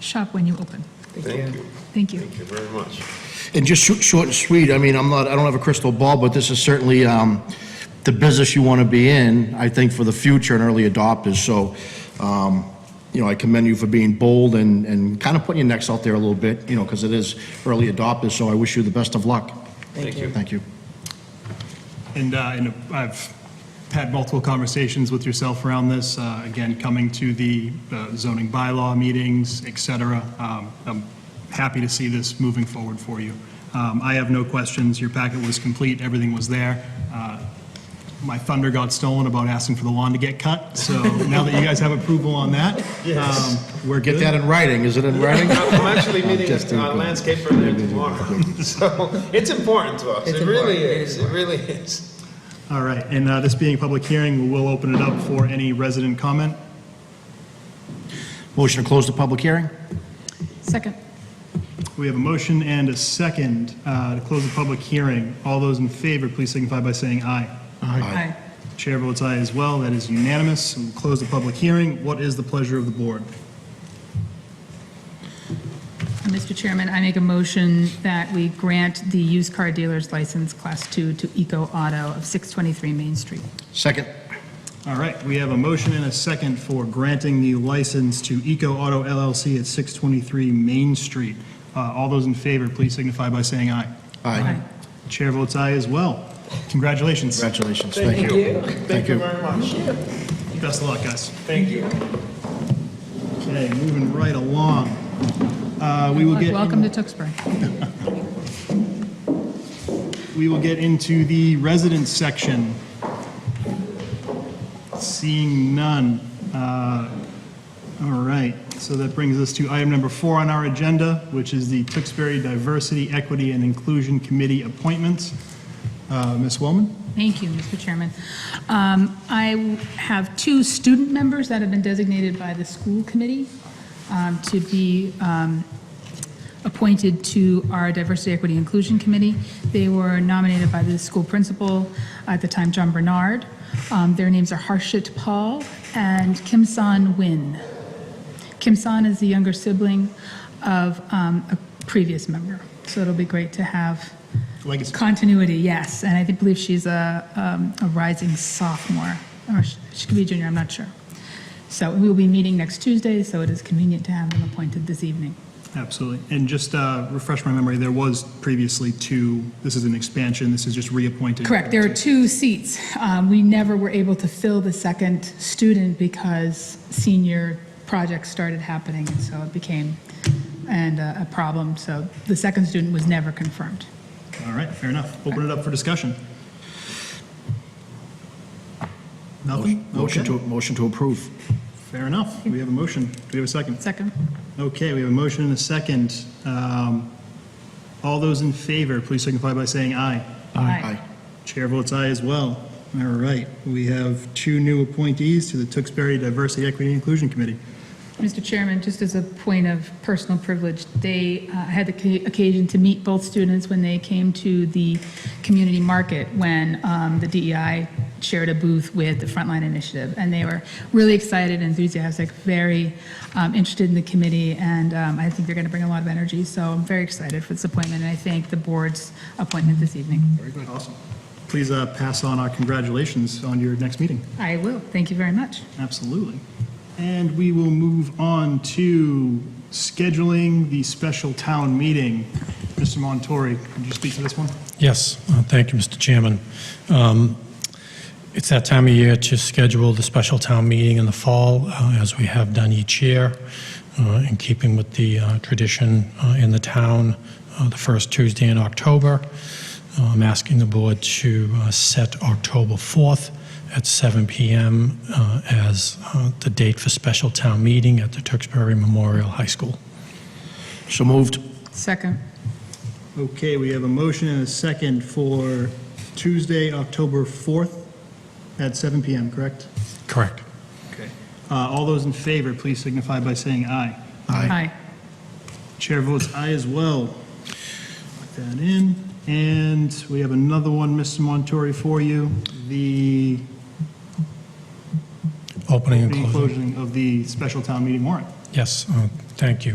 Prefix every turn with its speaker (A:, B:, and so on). A: shop when you open.
B: Thank you.
A: Thank you.
B: Thank you very much.
C: And just short- short and sweet, I mean, I'm not, I don't have a crystal ball, but this is certainly um, the business you want to be in, I think, for the future and early adopters. So, um, you know, I commend you for being bold and, and kind of putting your necks out there a little bit, you know, because it is early adopters, so I wish you the best of luck.
B: Thank you.
C: Thank you.
D: And, uh, and I've had multiple conversations with yourself around this, uh, again, coming to the uh, zoning bylaw meetings, et cetera. Um, I'm happy to see this moving forward for you. Um, I have no questions. Your packet was complete. Everything was there. Uh, My thunder got stolen about asking for the lawn to get cut, so now that you guys have approval on that, um, we're good.
C: Get that in writing, is it in writing?
B: I'm actually meeting
C: Just in-
B: a landscaper there tomorrow, so it's important to us.
E: It's
B: It really
E: important. It
B: is,
E: is
B: it really is.
D: All right, and uh, this being a public hearing, we will open it up for any resident comment.
C: Motion to close the public hearing?
A: Second.
D: We have a motion and a second uh, to close the public hearing. All those in favor, please signify by saying aye.
A: Aye.
D: Chair votes aye as well, that is unanimous. We'll close the public hearing. What is the pleasure of the board?
A: And Mr. Chairman, I make a motion that we grant the used car dealer's license, Class 2, to Eco Auto of 623 Main Street.
C: Second?
D: All right, we have a motion and a second for granting the license to Eco Auto LLC at 623 Main Street. Uh, All those in favor, please signify by saying aye.
C: Aye.
D: Chair votes aye as well. Congratulations.
C: Congratulations, thank you.
B: Thank you very much.
D: Best of luck, guys.
B: Thank you.
D: Okay, moving right along. Uh, We will
A: Look,
D: get.
A: Welcome to Tewksbury.
D: We will get into the residence section. Seeing none. Uh, All right, so that brings us to item number four on our agenda, which is the Tewksbury Diversity, Equity, and Inclusion Committee appointments. Uh, Ms. Wellman?
A: Thank you, Mr. Chairman. Um, I w- have two student members that have been designated by the school committee um, to be um, appointed to our Diversity, Equity, Inclusion Committee. They were nominated by the school principal at the time, John Bernard. Um, Their names are Harshit Paul and Kim San Nguyen. Kim San is the younger sibling of um, a previous member, so it'll be great to have
D: Legacy.
A: Continuity, yes, and I think- believe she's a, um, a rising sophomore, or sh- she could be a junior, I'm not sure. So we will be meeting next Tuesday, so it is convenient to have them appointed this evening.
D: Absolutely. And just uh, refresh my memory, there was previously two, this is an expansion, this is just reappointed.
A: Correct, there are two seats. Um, We never were able to fill the second student because senior projects started happening, and so it became, and uh, a problem, so the second student was never confirmed.
D: All right, fair enough. Open it up for discussion. Nothing?
C: Motion
D: Okay.
C: to, motion to approve.
D: Fair enough. We have a motion. Do we have a second?
A: Second?
D: Okay, we have a motion and a second. Um, All those in favor, please signify by saying aye.
A: Aye.
D: Chair votes aye as well. All right, we have two new appointees to the Tewksbury Diversity Equity and Inclusion Committee.
A: Mr. Chairman, just as a point of personal privilege, they uh, had the ca- occasion to meet both students when they came to the community market when um, the DEI shared a booth with the Frontline Initiative. And they were really excited, enthusiastic, very um, interested in the committee, and um, I think they're going to bring a lot of energy. So I'm very excited for this appointment, and I thank the board's appointment this evening.
D: Very good. Awesome. Please uh, pass on our congratulations on your next meeting.
A: I will. Thank you very much.
D: Absolutely. And we will move on to scheduling the special town meeting. Mr. Montori, could you speak to this one?
F: Yes, uh, thank you, Mr. Chairman. Um, It's that time of year to schedule the special town meeting in the fall, uh, as we have done each year, uh, in keeping with the uh, tradition uh, in the town, uh, the first Tuesday in October. Uh, I'm asking the board to uh, set October 4th at 7 PM uh, as uh, the date for special town meeting at the Tewksbury Memorial High School.
C: So moved.
A: Second.
D: Okay, we have a motion and a second for Tuesday, October 4th at 7 PM, correct?
F: Correct.
D: Okay. All those in favor, please signify by saying aye.
A: Aye.
D: Chair votes aye as well. Lock that in. And we have another one, Mr. Montori, for you. The
F: Opening and
D: the
F: closing.
D: closing of the special town meeting warrant.
F: Yes, uh, thank you.